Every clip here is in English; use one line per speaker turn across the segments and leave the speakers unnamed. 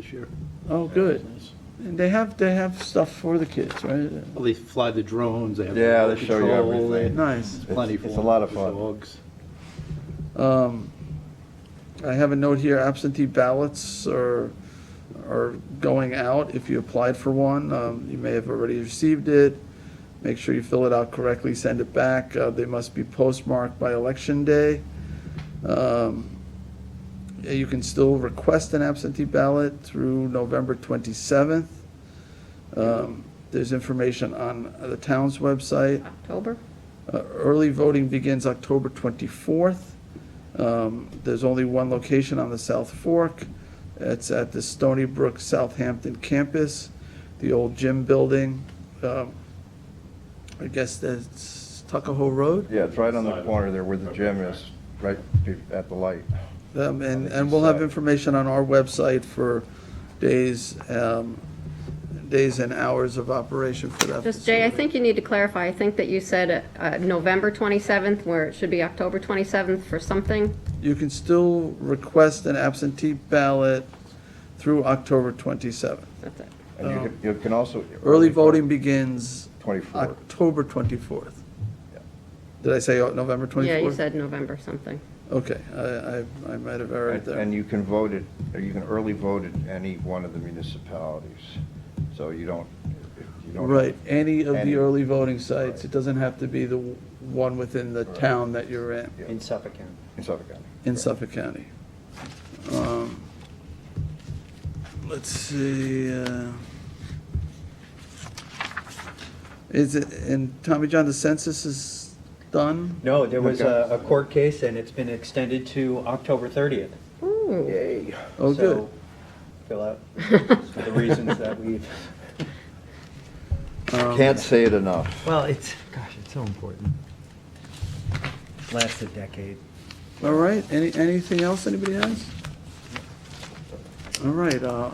this year.
Oh, good. And they have, they have stuff for the kids, right?
Well, they fly the drones, they have.
Yeah, they
remote
show you
control,
everything.
they-
Nice.
It's plenty for
It's- it's a
them,
lot of
the
fun.
Dogs.
Um, I have a note here, absentee ballots are, are going out if you applied for one. Um, You may have already received it. Make sure you fill it out correctly, send it back. Uh, They must be postmarked by Election Day. Um, yeah, You can still request an absentee ballot through November 27th. Um, There's information on the town's website.
October?
Uh, Early voting begins October 24th. Um, There's only one location on the South Fork. It's at the Stony Brook Southampton campus, the old gym building. Um, I guess that's Tuckahoe Road.
Yeah, it's right on the corner there where the gym is, right be- at the light.
Um, And, and we'll have information on our website for days, um, days and hours of operation for that.
Just, Jay, I
facility.
think you need to clarify. I think that you said uh, November 27th, where it should be October 27th for something.
You can still request an absentee ballot through October 27th.
That's it.
And you can, you can also.
Oh. Early voting begins
24.
October 24th.
Yeah.
Did I say uh, November 24th?
Yeah, you said November something.
Okay, I, I, I might have erred
And and
there.
you can vote it, or you can early vote at any one of the municipalities. So you don't, you don't.
Right, any of the
Any.
early voting sites, it doesn't have to be the w- one within the town that you're in,
Yeah.
in Suffolk County.
In Suffolk County.
in Suffolk County. Um, Let's see, uh, is it, and Tommy John, the census is done?
No, there was a a court case, and it's been extended to October 30th.
Ooh,
Yay.
Oh,
So,
good.
Fill out for the reasons that we've,
Um,
Can't say it enough.
well, it's, gosh, it's so important. Lasts a decade.
All right, any, anything else anybody has? All right, uh,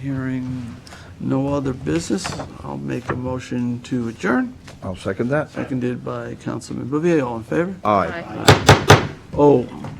hearing no other business, I'll make a motion to adjourn,
I'll second that.
seconded by Councilman Bouvier, all in favor?
Aye.
Bye.
Oh,